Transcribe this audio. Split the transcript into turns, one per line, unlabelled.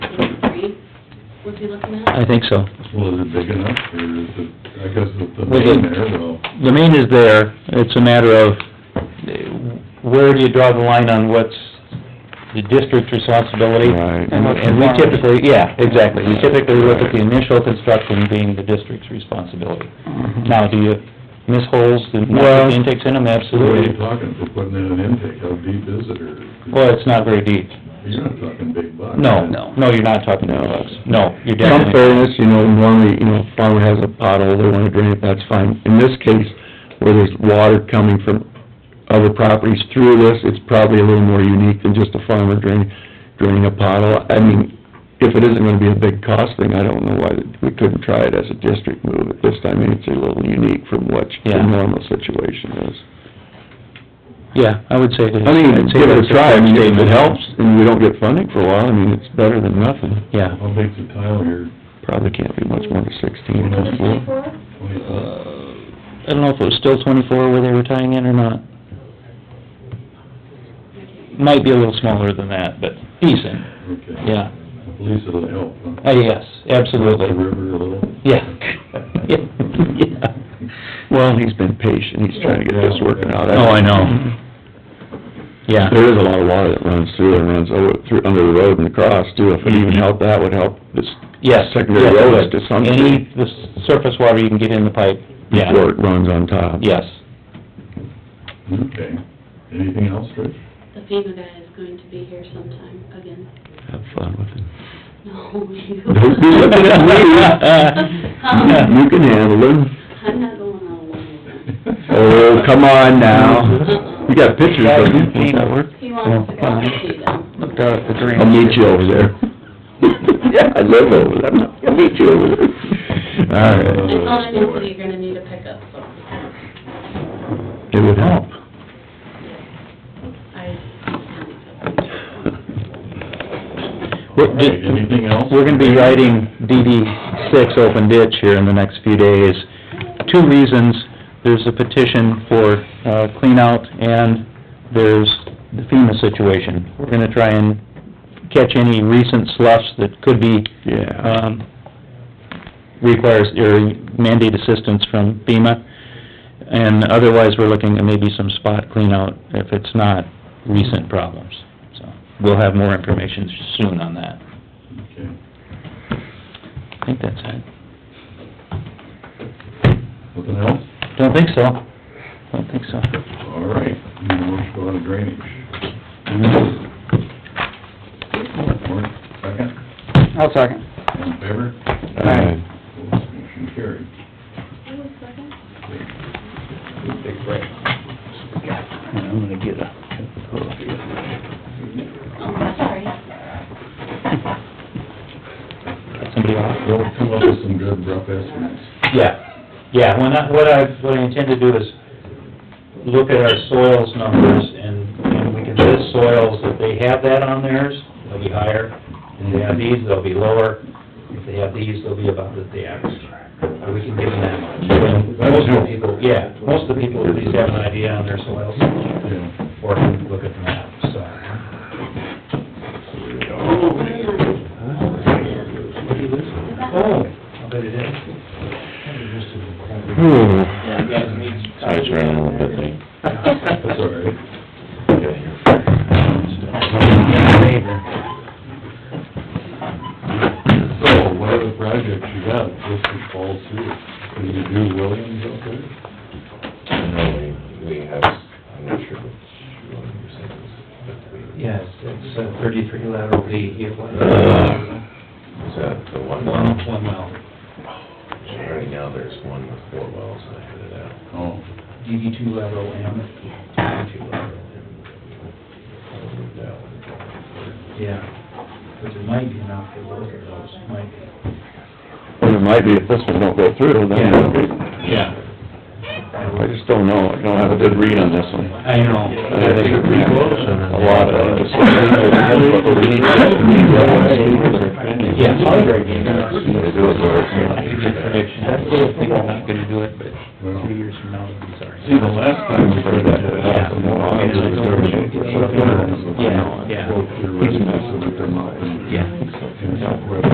would be looking
I
at?
think so.
Well, is it big enough, or is it, I guess with the
Well, the-
main there, well,
The main is there, it's a matter of eh, where do you draw the line on what's the district's responsibility?
Right.
And and we typically, yeah, exactly, we typically look at the initial construction being the district's responsibility. Now, do you miss holes, do you not put the intakes in them?
what are you
Absolutely.
talking for putting in an intake, how deep is it, or?
Well, it's not very deep.
You're not talking big bucks.
No, no, you're not talking to us. No, you're
In all
definitely,
fairness, you know, normally, you know, farmer has a pothole, they wanna drain it, that's fine. In this case, where there's water coming from other properties through this, it's probably a little more unique than just a farmer drain, draining a pothole. I mean, if it isn't gonna be a big cost thing, I don't know why we couldn't try it as a district move at this time. I mean, it's a little unique from what
Yeah.
your normal situation is.
yeah, I would say that.
I mean,
I'd say
give it a
that's
try, I mean, if it
statement.
helps, and we don't get funding for a while, I mean, it's better than nothing.
Yeah.
How big's the tile here,
Probably can't be much more than sixteen,
Well, that's
hopefully.
Twenty-four?
twenty-four?
Uh, I don't know if it was still twenty-four where they were tying in or not. Might be a little smaller than that, but decent,
Okay.
yeah.
At least it'll help, huh?
Uh, yes,
The
absolutely,
river a little?
yeah. Yeah, yeah.
Well, he's been patient, he's trying to get this working out.
Oh, I know. Yeah,
There is a lot of water that runs through and runs over, through, under the road and across too, if it even helped, that would help this
yes.
secondary
yes, it
roads
would.
to some
Any, the s- surface water you can get in the pipe, yeah,
before it runs on top.
yes.
Okay. Anything else, Rich?
The FEMA guy is going to be here sometime again.
Have fun with it.
No, you.
Don't be looking at
Um,
me. You can handle it.
I'm not going on one with them.
Uh,
Oh, come on now. You got pictures of him?
He
Oh,
wants to go see them.
Looked out at the drain.
I'll meet you over there. Yeah, I live over there, I'll meet you over there.
I
All right.
told him, I said, you're gonna need a pickup, so
It would help.
I.
All right, anything else?
We're gonna be writing DD six open ditch here in the next few days. Two reasons, there's a petition for, uh, cleanout and there's the FEMA situation. We're gonna try and catch any recent slush that could be,
Yeah.
um, requires, or mandate assistance from FEMA. And otherwise, we're looking at maybe some spot cleanout if it's not recent problems. So, we'll have more information soon on that.
Okay.
I think that's it.
Nothing else?
Don't think so. Don't think so.
All right, now let's go on to drainage. Warren, second,
I'll second.
all in favor?
Aye.
Opposed, Motion carried. Take a break.
I'm gonna get a...
Oh, sorry.
Somebody off?
We'll come up with some good rough estimates.
Yeah, yeah, when I, what I, what I intend to do is look at our soils numbers and, and we can list soils, if they have that on theirs, they'll be higher. If they have these, they'll be lower. If they have these, they'll be about the the average. Or we can give them that much. And Most of the people, yeah, most of the people at least have an idea on their soils
Yeah.
or can look at the map, so. Oh, I bet it is.
Size around a little bit there.
That's all right. So, what other projects you got, just to fall through? Can you do Williams up there?
No, we, we have, I'm not sure which one you said was, but we,
Yes, it's uh, thirty-three lateral D, it was
Uh,
is that the one?
one, one well.
Right now, there's one with four wells, and I headed out.
Oh,
DD two lateral M,
Two lateral and- I'll move that one.
yeah. But there might be enough for both of those, might be.
Well, it might be if this one don't go through, then it'll be... I just don't know, I don't have a good read on this one.
I know.
I think it'd be A lot of...
Yeah.
They do it where it's-
Prediction, I still think we're not gonna do it, but
well,
three years from now, it'll be sorry.
see, the last time uh, we heard that, it happened, well, I was there.
Yeah, yeah.
Well, there was a mess